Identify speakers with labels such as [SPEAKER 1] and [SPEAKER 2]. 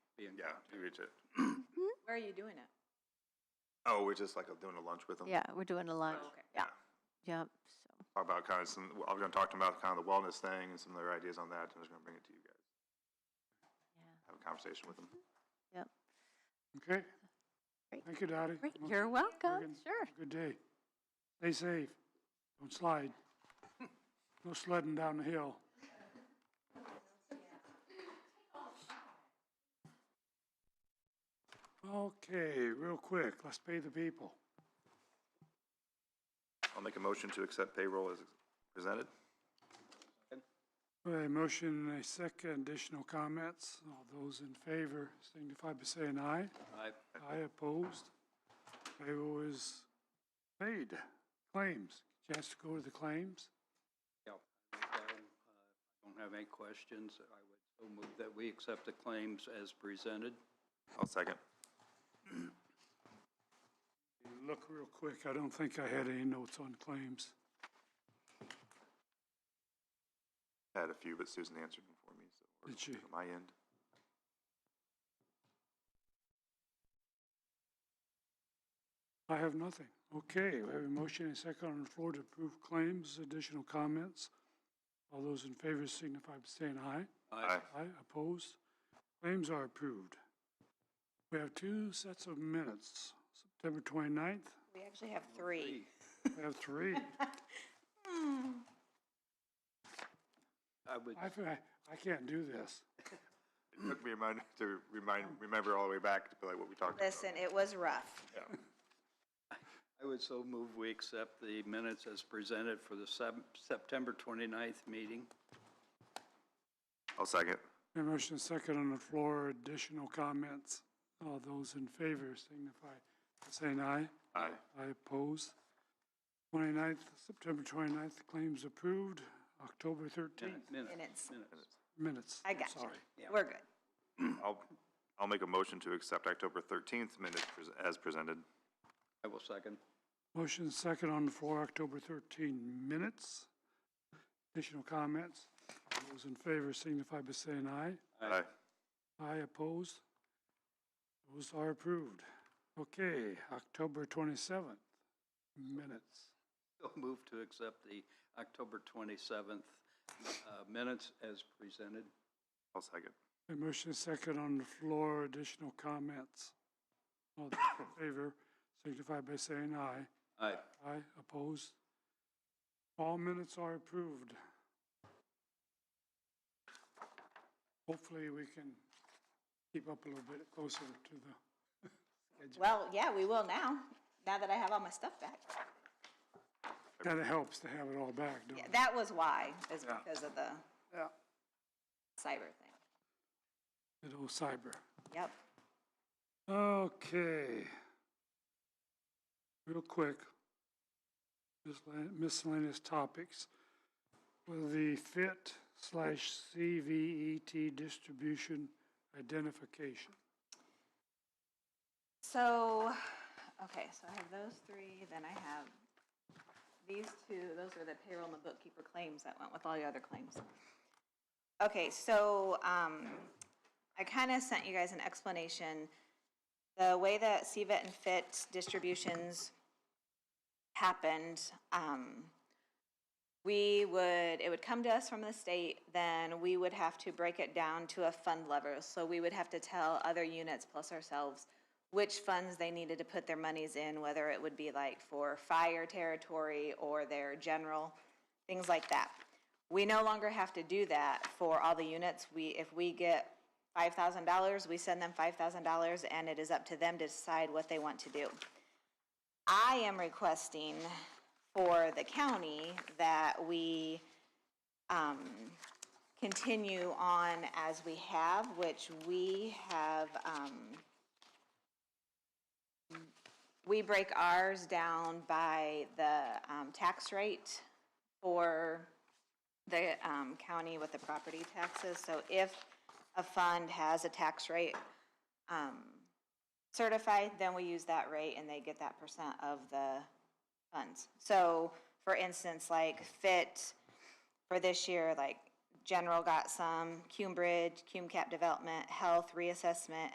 [SPEAKER 1] be in
[SPEAKER 2] Yeah,
[SPEAKER 1] contact.
[SPEAKER 2] we just,
[SPEAKER 3] Where are you doing it?
[SPEAKER 2] oh, we're just like doing a lunch with them.
[SPEAKER 4] Yeah, we're doing a lunch.
[SPEAKER 3] okay.
[SPEAKER 4] Yeah, yep, so,
[SPEAKER 2] Talk About kind of some, I was gonna talk to them about kind of the wellness thing and some of their ideas on that, and I was gonna bring it to you guys. Have a conversation with them.
[SPEAKER 4] yep.
[SPEAKER 5] Okay.
[SPEAKER 4] Great.
[SPEAKER 5] Thank you, Dottie.
[SPEAKER 4] Great,
[SPEAKER 5] Well,
[SPEAKER 4] you're
[SPEAKER 5] have a
[SPEAKER 4] welcome,
[SPEAKER 5] good-
[SPEAKER 4] sure.
[SPEAKER 5] have a Good day. Stay safe. Don't slide. No sledding down the hill. Okay, real quick, let's pay the people.
[SPEAKER 2] I'll make a motion to accept payroll as presented.
[SPEAKER 5] A motion, and a second, additional comments. All those in favor signify by saying aye.
[SPEAKER 1] Aye.
[SPEAKER 5] I opposed. Payroll is paid. Claims, chance to go to the claims.
[SPEAKER 1] Yeah, I wrote down, uh, Don't have any questions. I would so move that we accept the claims as presented.
[SPEAKER 2] I'll second.
[SPEAKER 5] Look real quick, I don't think I had any notes on claims.
[SPEAKER 2] Had a few, but Susan answered them for me, so. we're
[SPEAKER 5] Did she?
[SPEAKER 2] good On my end.
[SPEAKER 5] I have nothing. Okay, we have a motion and a second on the floor to approve claims, additional comments. All those in favor signify by saying aye.
[SPEAKER 1] Aye.
[SPEAKER 5] Aye, opposed? Claims are approved. We have two sets of minutes, September 29th,
[SPEAKER 3] We actually have three.
[SPEAKER 5] we have three.
[SPEAKER 1] I would,
[SPEAKER 5] I, fe- I can't do this.
[SPEAKER 2] It took me a minute to remind, remember all the way back to like what we talked about.
[SPEAKER 3] Listen, it was rough.
[SPEAKER 1] I would so move we accept the minutes as presented for the Sep- September 29th meeting.
[SPEAKER 2] I'll second.
[SPEAKER 5] A motion and a second on the floor, additional comments. All those in favor signify by saying aye.
[SPEAKER 2] Aye.
[SPEAKER 5] I oppose. 29th, September 29th, claims approved. October 13th,
[SPEAKER 1] Minute- Minutes.
[SPEAKER 3] Minutes.
[SPEAKER 1] Minutes.
[SPEAKER 5] minutes.
[SPEAKER 3] I got you.
[SPEAKER 5] Sorry.
[SPEAKER 3] We're good.
[SPEAKER 2] I'll, I'll make a motion to accept October thirteenth minutes pres- as presented.
[SPEAKER 1] I will second.
[SPEAKER 5] Motion second on the floor, October 13 minutes. Additional comments? Those in favor signify by saying aye.
[SPEAKER 2] Aye.
[SPEAKER 5] Aye opposed. Those are approved. Okay, October 27th minutes.
[SPEAKER 1] So move to accept the October 27th uh, minutes as presented.
[SPEAKER 2] I'll second.
[SPEAKER 5] A motion second on the floor, additional comments. All those in favor signify by saying aye.
[SPEAKER 1] Aye.
[SPEAKER 5] Aye, opposed. All minutes are approved. Hopefully, we can keep up a little bit closer to the,
[SPEAKER 3] Well, yeah, we will now, now that I have all my stuff back.
[SPEAKER 5] that helps to have it all back, don't
[SPEAKER 3] Yeah,
[SPEAKER 5] it?
[SPEAKER 3] that was why, is because of the
[SPEAKER 5] Yeah.
[SPEAKER 3] cyber thing.
[SPEAKER 5] Good old cyber.
[SPEAKER 3] Yep.
[SPEAKER 5] Okay. Real quick, miscellaneous- miscellaneous topics. Will the FIT slash CVET distribution identification?
[SPEAKER 3] So, okay, so I have those three, then I have these two, those are the payroll and the bookkeeper claims that went with all the other claims. Okay, so, um, I kinda sent you guys an explanation. The way that CVET and FIT distributions happened, um, we would, it would come to us from the state, then we would have to break it down to a fund level. So we would have to tell other units plus ourselves which funds they needed to put their monies in, whether it would be like for fire territory or their general, things like that. We no longer have to do that for all the units. We, if we get five thousand dollars, we send them five thousand dollars and it is up to them to decide what they want to do. I am requesting for the county that we um, continue on as we have, which we have, um, we break ours down by the um, tax rate for the um, county with the property taxes. So if a fund has a tax rate um, certified, then we use that rate and they get that percent of the funds. So, for instance, like FIT for this year, like General got some, Cume Bridge, Cume Cap Development, Health Reassessment,